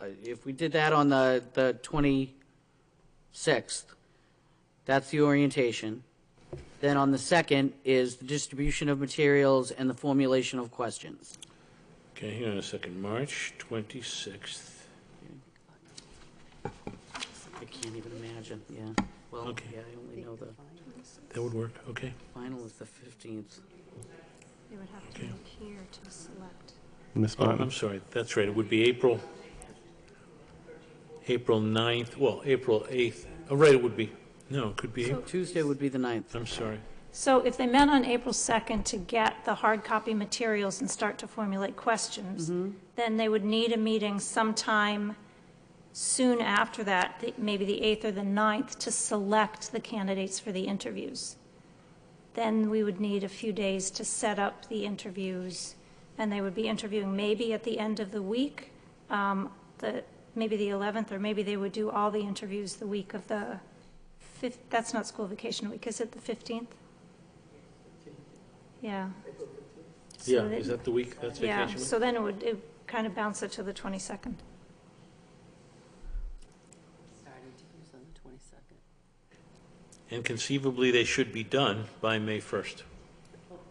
Uh, if we did that on the, the twenty-sixth, that's the orientation. Then on the second is the distribution of materials and the formulation of questions. Okay, hang on a second, March 26th. I can't even imagine, yeah. Well, Okay. yeah, I only know the That would work, okay. final is the fifteenth. They would have to Okay. be here to select. Ms. Oh, Martin? I'm sorry, that's right, it would be April, April 9th, well, April 8th. Oh, right, it would be, no, it could be, April. Tuesday would be the ninth. I'm sorry. So if they met on April 2nd to get the hard copy materials and start to formulate questions, then they would need a meeting sometime soon after that, the- maybe the 8th or the 9th, to select the candidates for the interviews. Then we would need a few days to set up the interviews, and they would be interviewing maybe at the end of the week, um, the, maybe the 11th, or maybe they would do all the interviews the week of the 5th, that's not school vacation week, is it the 15th? Yeah. So Yeah, they- is that the week, that's Yeah, vacation week? so then it would, it kind of bounce it to the 22nd. Starting to use on the 22nd. And conceivably, they should be done by May 1st.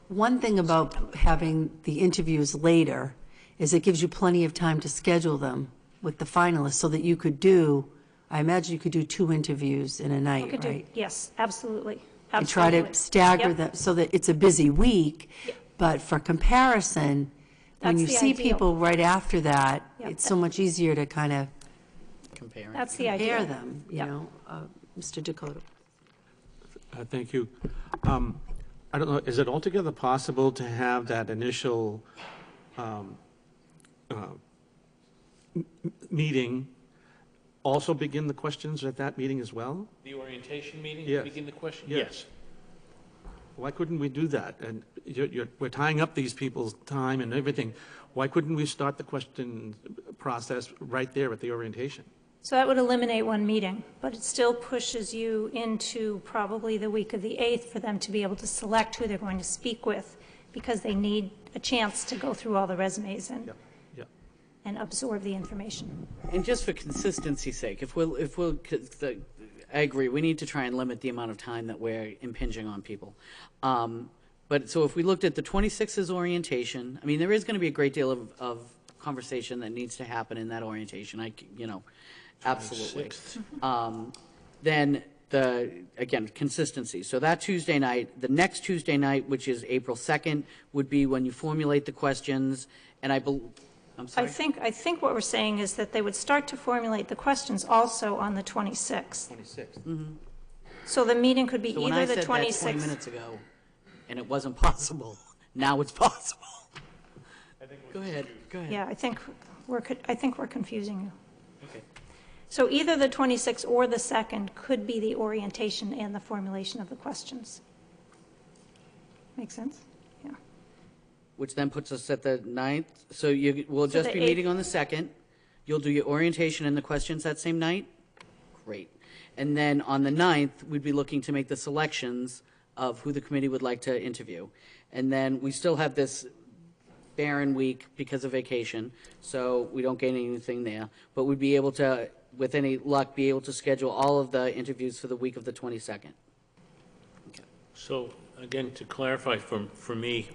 One thing about having the interviews later is it gives you plenty of time to schedule them with the finalists so that you could do, I imagine you could do two interviews in a We night, could do- right? Yes, absolutely, And try absolutely. to stagger Yep. them so that it's a busy week, but for comparison, when That's you the see ideal. people right after that, Yep. it's so much easier to kind of Comparing. That's the idea. pair them, you Yep. know? Uh, Mr. Dakota? Uh, Thank you. Um, I don't know, is it altogether possible to have that initial um, uh, m- m- meeting also begin the questions at that meeting as well? The orientation meeting, Yes. begin the question? Yes. Why couldn't we do that? And you're, you're, we're tying up these people's time and everything. Why couldn't we start the question process right there at the orientation? So that would eliminate one meeting, but it still pushes you into probably the week of the 8th for them to be able to select who they're going to speak with, because they need a chance to go through all the resumes and, Yeah, yeah. and absorb the information. And just for consistency's sake, if we'll, if we'll, 'cause the- I agree, we need to try and limit the amount of time that we're impinging on people. Um, But, so if we looked at the 26's orientation, I mean, there is going to be a great deal of, of conversation that needs to happen in that orientation, I, c- you know, absolutely. Um, Then the, again, consistency. So that Tuesday night, the next Tuesday night, which is April 2nd, would be when you formulate the questions, and I bel, I'm I sorry. think, I think what we're saying is that they would start to formulate the questions also on the 26th. 26th. So the meeting could be So when I either the said that 20 26th. minutes ago, and it wasn't possible, now it's possible. Go ahead, go ahead. Yeah, I think we're, co- I think we're confusing you. Okay. So either the 26th or the 2nd could be the orientation and the formulation of the questions. Make sense? Yeah. Which then puts us at the ninth, so you, we'll So just the be eighth- meeting on the second. You'll do your orientation and the questions that same night? Great. And then on the ninth, we'd be looking to make the selections of who the committee would like to interview. And then we still have this barren week because of vacation, so we don't gain anything there. But we'd be able to, with any luck, be able to schedule all of the interviews for the week of the 22nd. So again, to clarify for, for me,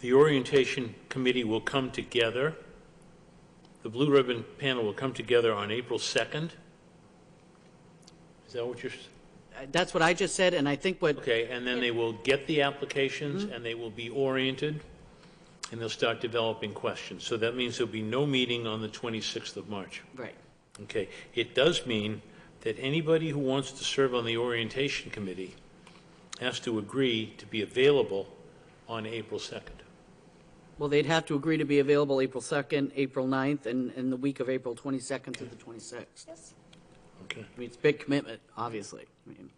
the orientation committee will come together, the Blue Ribbon panel will come together on April 2nd? Is that what you're, s- Uh, That's what I just said, and I think what, okay, and then they will get the applications and they will be oriented and they'll start developing questions. So that means there'll be no meeting on the 26th of March. right. Okay, it does mean that anybody who wants to serve on the orientation committee has to agree to be available on April 2nd. Well, they'd have to agree to be available April 2nd, April 9th, and, and the week of April 22nd through the 26th. Okay, I mean, it's a big commitment, obviously. I mean,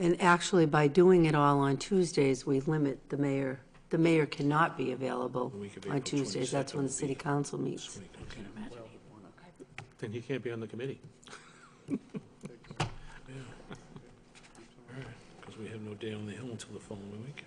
And actually, by doing it all on Tuesdays, we limit the mayor, the mayor cannot be available week of on April Tuesdays. That's 22nd when the would be city council meets. Then he can't be on the committee. because we have no day on the hill until the following week.